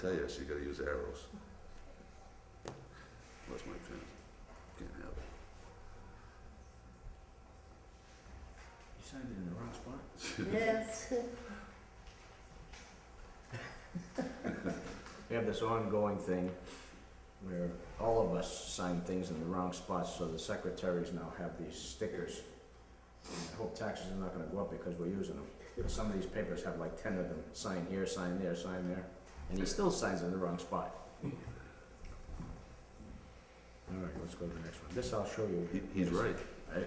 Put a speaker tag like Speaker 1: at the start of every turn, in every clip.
Speaker 1: tell you, she gotta use arrows. Lost my pen. Can't have it.
Speaker 2: You signed it in the wrong spot.
Speaker 3: Yes.
Speaker 2: We have this ongoing thing where all of us sign things in the wrong spots, so the secretaries now have these stickers. And I hope taxes are not gonna go up because we're using them. But some of these papers have like ten of them, sign here, sign there, sign there, and he still signs in the wrong spot. All right, let's go to the next one. This I'll show you.
Speaker 1: He, he's right.
Speaker 2: Right.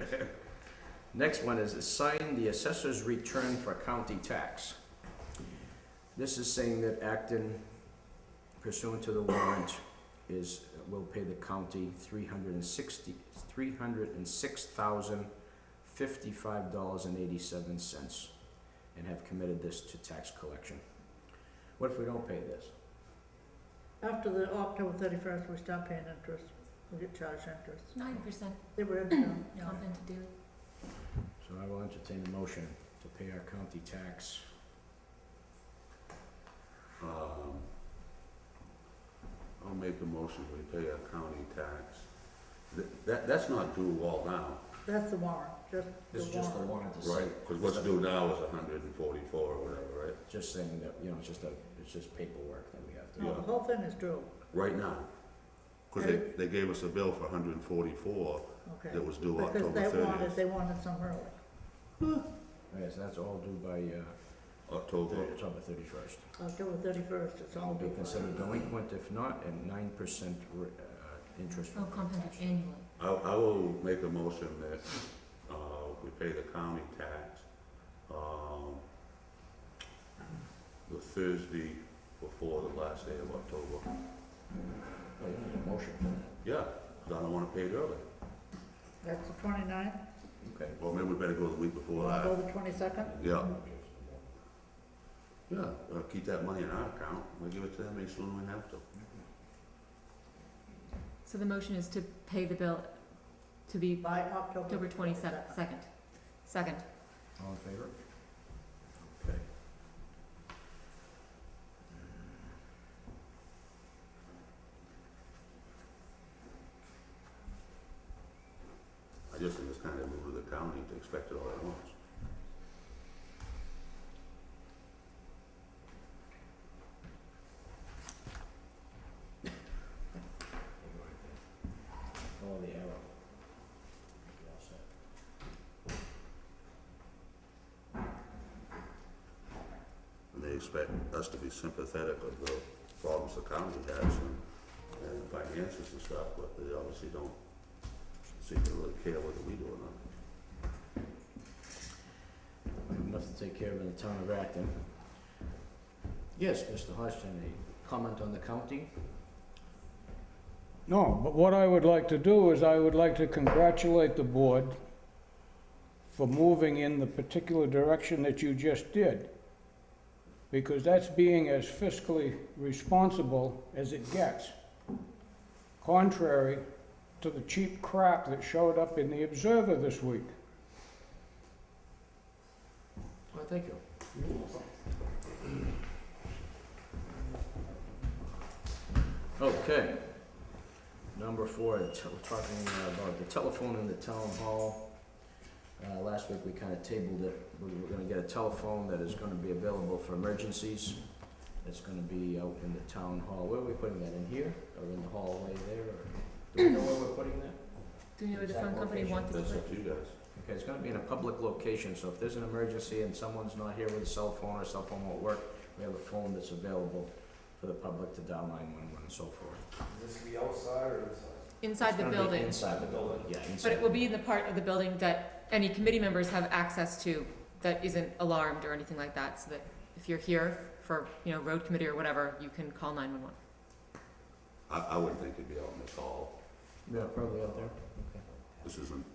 Speaker 2: Next one is sign the assessor's return for county tax. This is saying that Acton pursuant to the warrant is, will pay the county three hundred and sixty, three hundred and six thousand fifty-five dollars and eighty-seven cents and have committed this to tax collection. What if we don't pay this?
Speaker 3: After the October thirty-first, we stop paying interest, we get charged interest.
Speaker 4: Nine percent
Speaker 3: They were in town.
Speaker 4: comp to do.
Speaker 2: So I will entertain a motion to pay our county tax.
Speaker 1: Um, I'll make a motion, we pay our county tax. Th- That, that's not due all now,
Speaker 3: That's the warrant, just
Speaker 2: This is
Speaker 3: the
Speaker 2: just the warrant
Speaker 3: warrant.
Speaker 2: to say.
Speaker 1: right? Cause what's due now is hundred and forty-four or whatever, right?
Speaker 2: Just saying that, you know, it's just a, it's just paperwork that we have to.
Speaker 3: No,
Speaker 1: Yeah.
Speaker 3: the whole thing is due,
Speaker 1: Right now. Cause they, they gave us a bill for hundred and forty-four
Speaker 3: okay.
Speaker 1: that was due
Speaker 3: Because
Speaker 1: October
Speaker 3: they wanted,
Speaker 1: thirtieth.
Speaker 3: they wanted some early.
Speaker 2: Yes, that's all due by, uh,
Speaker 1: October,
Speaker 2: October thirty-first.
Speaker 3: October thirty-first, it's all
Speaker 2: Will
Speaker 3: due.
Speaker 2: be considered delinquent if not, and nine percent, uh, interest.
Speaker 4: Oh, comp annually.
Speaker 1: I, I will make a motion that, uh, we pay the county tax, um, the Thursday before the last day of October.
Speaker 2: Oh, you need a motion for that.
Speaker 1: Yeah, 'cause I don't wanna pay it early.
Speaker 3: That's the twenty-ninth,
Speaker 2: Okay.
Speaker 1: Well, maybe we better go the week before that.
Speaker 3: October twenty-second,
Speaker 1: Yeah. Yeah, uh, keep that money in our account, we'll give it to them as soon as we have to.
Speaker 4: So the motion is to pay the bill to be
Speaker 3: by October.
Speaker 4: October twenty-second, second. Second,
Speaker 2: All in favor? Okay. Mm.
Speaker 1: I just think it's kinda rude of the county to expect it all at once.
Speaker 2: Follow the arrow. You're all set.
Speaker 1: And they expect us to be sympathetic of the problems the county has and, and finances and stuff, but they obviously don't seem to really care whether we do or not.
Speaker 2: We have Enough to take care of in the town of Acton. Yes, Mr. Hodgson, a comment on the county?
Speaker 5: No, but what I would like to do is I would like to congratulate the board for moving in the particular direction that you just did. Because that's being as fiscally responsible as it gets. Contrary to the cheap crap that showed up in the Observer this week.
Speaker 2: Well, thank you. Okay. Number four, the tel- talking about the telephone in the town hall. Uh, last week, we kinda tabled it, we were gonna get a telephone that is gonna be available for emergencies. It's gonna be out in the town hall, where are we putting that, in here, or in the hallway there, or, do we know where we're putting that?
Speaker 4: do you know where the
Speaker 2: Exact
Speaker 4: phone company
Speaker 2: location.
Speaker 4: wants to
Speaker 1: That's
Speaker 4: put?
Speaker 1: up to you guys.
Speaker 2: Okay, it's gonna be in a public location, so if there's an emergency and someone's not here with a cell phone or cell phone won't work, we have a phone that's available for the public to dial nine one one and so forth.
Speaker 6: Does this be outside or inside?
Speaker 4: Inside the
Speaker 2: It's gonna be
Speaker 4: building,
Speaker 2: Inside the building, yeah, inside.
Speaker 4: but it will be in the part of the building that any committee members have access to that isn't alarmed or anything like that, so that if you're here for, you know, road committee or whatever, you can call nine-one-one.
Speaker 1: I, I wouldn't think it'd be out in this hall.
Speaker 2: Yeah, probably out there.
Speaker 1: This isn't,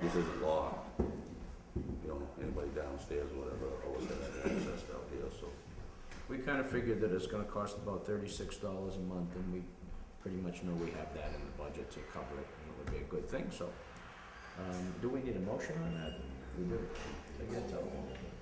Speaker 1: this isn't law. You know, anybody downstairs or whatever, always has access out here, so.
Speaker 2: We kinda figured that it's gonna cost about thirty-six dollars a month, and we pretty much know we have that in the budget to cover it, and it would be a good thing, so. Um, do we need a motion on that? We do. To get telephone.